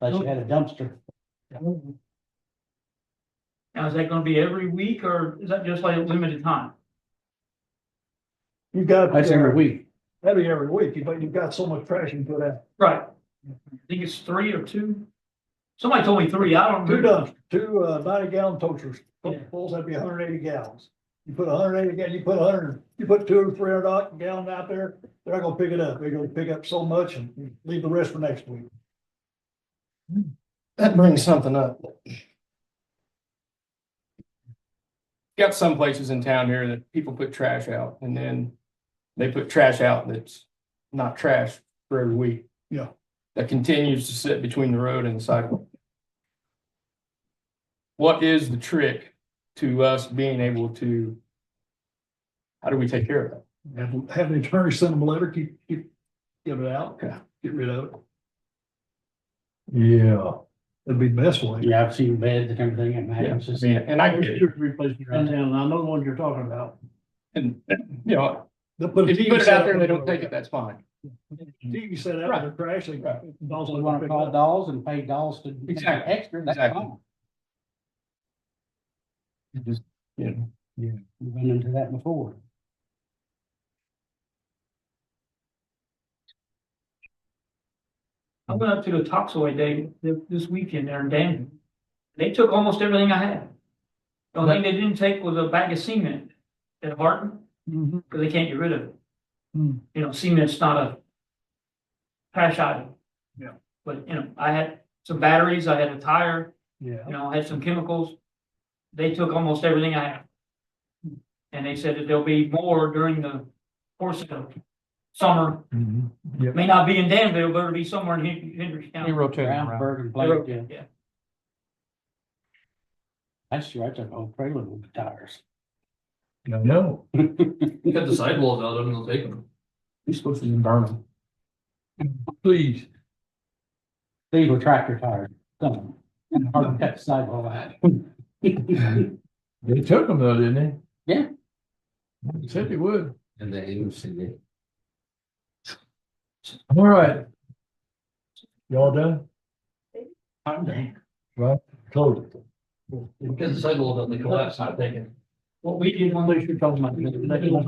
unless you had a dumpster. Now, is that gonna be every week or is that just like a limited time? You've got. That's every week. That'd be every week, but you've got so much trash you can put out. Right. I think it's three or two. Somebody told me three, I don't. Two remember. dumpsters, two uh ninety gallon toasters, Yeah. those that'd be hundred eighty gallons. You put hundred eighty, you put hundred, you put two or three hundred odd gallon out there, they're not gonna pick it up. They're gonna pick up so much and leave the rest for next week. That brings something up. Got some places in town here that people put trash out and then they put trash out that's not trash for every week. Yeah. That continues to sit between the road and the sidewalk. What is the trick to us being able to? How do we take care of that? Have, have an attorney send them a letter, keep, keep, get it out, Yeah. get rid of it. Yeah. That'd be the best way. Yeah, I've seen beds and everything and Yeah, mattresses. I mean, and I get it. And then I know the one you're talking about. And, you know, But if you put it out there and they don't take it, that's fine. TV set out their trash, they. Right. Also want to call dolls and pay dolls to make it Exactly, extra, that's exactly. fine. It Just, you know. We've been into that before. I went up to the Toxaway Day th- this weekend there in Danville. They took almost everything I had. The only thing they didn't take was a bag of cement at Harton, because they can't get rid of it. Hmm. You know, cement's not a trash item. Yeah. But, you know, I had some batteries, I had a tire, Yeah. you know, I had some chemicals. They took almost everything I had. Hmm. And they said that there'll be more during the course of summer. Mm-hmm. It May not be in Danville, but it'll be somewhere in Hen- Hendricks County. rotate Brownsburg and Blake, yeah. Yeah. That's right, that old trailer with the tires. No. You got the sidewalls out, I'm gonna take them. You're supposed to burn them. Please. These were tractor tires, some of them, and hard to cut sidewall out. They They took them though, didn't they? Yeah. Said they would. And they even see it. All right. Y'all done? Right, close it. You got the sidewalls out, they collapse, I'm thinking. What we did when we were talking about.